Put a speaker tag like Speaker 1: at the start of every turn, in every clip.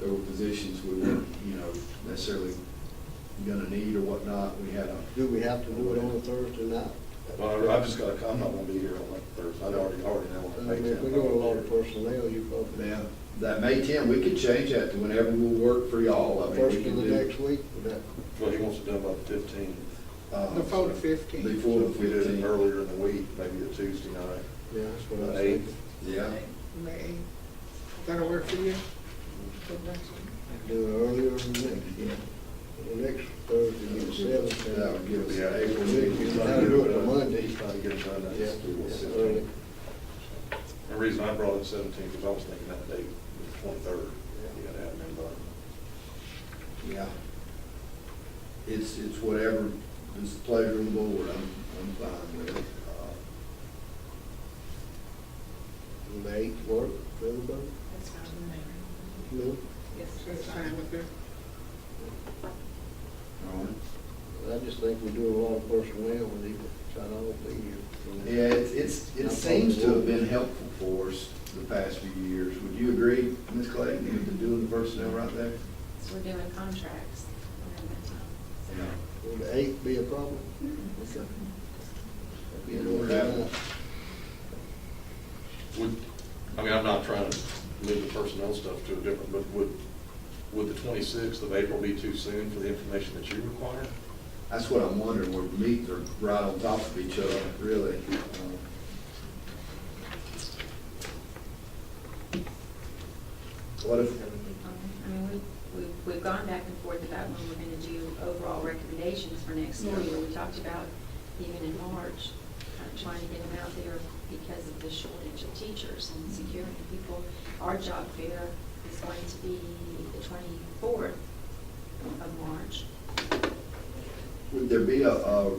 Speaker 1: there were positions we weren't, you know, necessarily gonna need or whatnot, we had a.
Speaker 2: Do we have to do it on a Thursday night?
Speaker 3: Well, I've just got, I'm not gonna be here on that Thursday, I already, I already know.
Speaker 2: I
Speaker 3: what
Speaker 2: mean,
Speaker 3: I'm
Speaker 2: if we go to a lot of personnel, you probably,
Speaker 1: Now, that May ten, we could change that to whenever will work for y'all, I mean.
Speaker 2: first
Speaker 1: we
Speaker 2: of
Speaker 1: can
Speaker 2: the
Speaker 1: do-
Speaker 2: next week, would that,
Speaker 3: Well, he wants it done by the fifteenth,
Speaker 1: uh,
Speaker 4: Before the fifteenth.
Speaker 1: Before
Speaker 3: so
Speaker 1: the
Speaker 3: if we did it
Speaker 1: fifteenth,
Speaker 3: earlier in the week, maybe a Tuesday night.
Speaker 2: yeah, that's what I was
Speaker 3: Eight.
Speaker 2: thinking.
Speaker 1: yeah,
Speaker 4: May. That'll work for you?
Speaker 2: Do it earlier than next, yeah. The next Thursday, be the seventh.
Speaker 1: that would give us
Speaker 3: Yeah,
Speaker 1: April.
Speaker 3: April,
Speaker 1: meeting.
Speaker 2: You gotta do it on Monday.
Speaker 3: He's trying to get it done,
Speaker 2: Yeah,
Speaker 3: that's
Speaker 2: it's
Speaker 3: the
Speaker 2: early.
Speaker 3: The reason I brought up seventeen, because I was thinking that day, the twenty-third, you gotta have them done.
Speaker 1: Yeah. It's, it's whatever is the pleasure of the board, I'm, I'm fine with it. Uh,
Speaker 2: And the eighth work, for everybody?
Speaker 5: That's fine with
Speaker 2: No,
Speaker 5: me.
Speaker 4: So it's fine with her?
Speaker 1: all right.
Speaker 2: I just think we do a lot of personnel with each, so I don't think you.
Speaker 1: Yeah, it's, it's, it seems to have been helpful for us the past few years. Would you agree, Ms. Clayton, with the doing the personnel right there?
Speaker 5: So we're doing contracts around that time.
Speaker 1: Yeah.
Speaker 2: Would the eighth be a problem?
Speaker 5: So-
Speaker 1: You know, we're having-
Speaker 3: Would, I mean, I'm not trying to move the personnel stuff to a different, but would, would the twenty-sixth of April be too soon for the information that you require?
Speaker 1: That's what I'm wondering, where meet are right on top of each other, really. Uh, What if,
Speaker 5: I mean, we, we've, we've gone back and forth about when we're gonna do overall recommendations for next
Speaker 1: Yeah.
Speaker 5: year. We talked about even in March, uh, trying to get them out there because of the shortage of teachers and securing people. Our job fair is going to be the twenty-fourth of March.
Speaker 1: would there be a, a,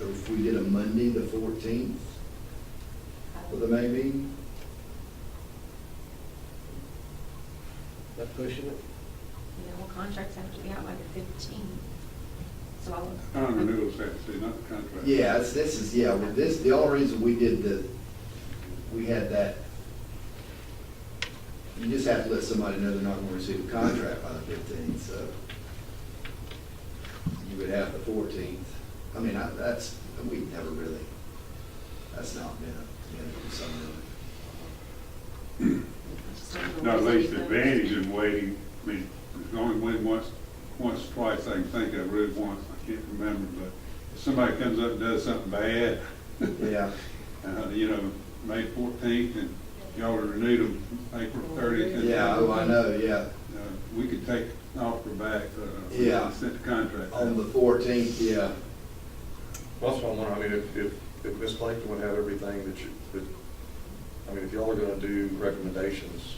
Speaker 1: if we did a Monday, the fourteenth, for the May meeting?
Speaker 2: That pushing it?
Speaker 5: You know, well, contracts have to be out by the fifteenth, so I'll.
Speaker 6: Kind of renewals actually, not the contract.
Speaker 1: Yeah, it's- this is, yeah, well, this, the only reason we did the, we had that, you just have to let somebody know they're not gonna receive a contract by the fifteenth, so you would have the fourteenth. I mean, I, that's, we've never really, that's not been a, been a concern.
Speaker 5: I just don't know
Speaker 6: Not
Speaker 5: where
Speaker 6: least
Speaker 5: to
Speaker 6: the
Speaker 5: go.
Speaker 6: advantage in waiting, I mean, it's only when once, once, twice I can think of, really once, I can't remember, but if somebody comes up and does something bad,
Speaker 1: Yeah,
Speaker 6: uh, you know, May fourteenth, and y'all renewed them April thirtieth. uh,
Speaker 1: yeah, oh, I know, yeah.
Speaker 6: We could take an offer back, uh, we
Speaker 1: Yeah.
Speaker 6: sent the contract. out.
Speaker 1: On the fourteenth, yeah,
Speaker 3: Well, that's what I'm wondering, I mean, if, if, if Ms. Clayton would have everything that you, that, I mean, if y'all are gonna do recommendations,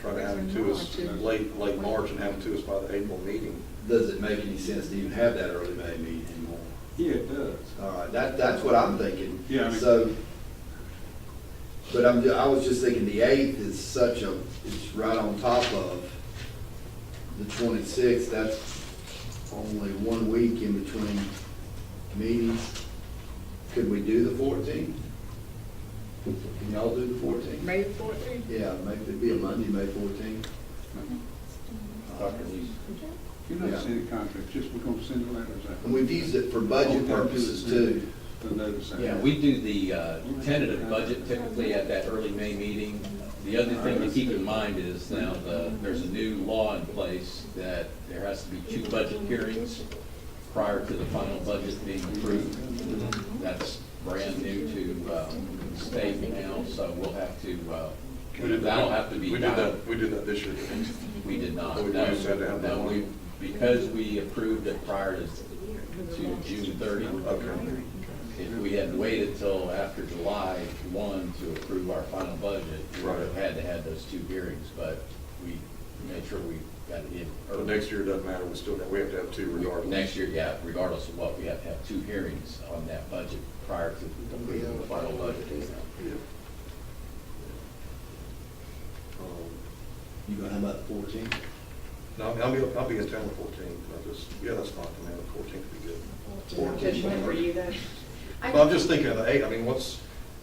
Speaker 3: try to have them to us late, late March and have them to us by the April meeting.
Speaker 1: does it make any sense to even have that early May meeting anymore?
Speaker 6: Yeah, it does.
Speaker 1: All right, that, that's what I'm thinking.
Speaker 6: Yeah, I mean-
Speaker 1: So, but I'm, ju- I was just thinking the eighth is such a, it's right on top of the twenty-sixth, that's only one week in between meetings. Could we do the fourteenth? Can y'all do the fourteenth?
Speaker 4: May fourteenth?
Speaker 1: Yeah, maybe it'd be a Monday, May fourteenth.
Speaker 3: Dr. Lee.
Speaker 6: You're not
Speaker 1: Yeah.
Speaker 6: sending contracts, just we're gonna send the letters out.
Speaker 1: And we've used it for budget purposes too.
Speaker 6: The notice out.
Speaker 7: Yeah, we do the uh, tentative budget typically at that early May meeting. The other thing to keep in mind is now the, there's a new law in place that there has to be two budget hearings prior to the final budget being approved. That's brand new to uh, state now, so we'll have to, uh, that'll have to be
Speaker 3: We did
Speaker 7: done.
Speaker 3: that, we did that this year.
Speaker 7: We did not.
Speaker 3: We
Speaker 7: No.
Speaker 3: just had to have that
Speaker 7: No, we-
Speaker 3: one.
Speaker 7: Because we approved it prior to, to June thirty.
Speaker 3: Okay.
Speaker 7: If we had waited till after July one to approve our final budget, we would have
Speaker 3: Right.
Speaker 7: had to have those two hearings, but we made sure we got it in.
Speaker 3: But
Speaker 7: early.
Speaker 3: next year, it doesn't matter, we still, we have to have two regardless.
Speaker 7: Next year, yeah, regardless of what, we have to have two hearings on that budget prior to approving the final budget.
Speaker 3: Yeah.
Speaker 1: You gonna have about the fourteenth?
Speaker 3: Um, No, I mean, I'll be, I'll be in town the fourteenth, I just, yeah, that's fine, I mean, the fourteenth would be good.
Speaker 5: Which one were you then? I-
Speaker 3: Well, I'm just thinking of the eight, I mean, what's,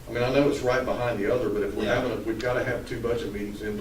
Speaker 3: I mean, I know it's right behind the other, but if we're
Speaker 7: Yeah.
Speaker 3: having, a- we've got to have two budget meetings in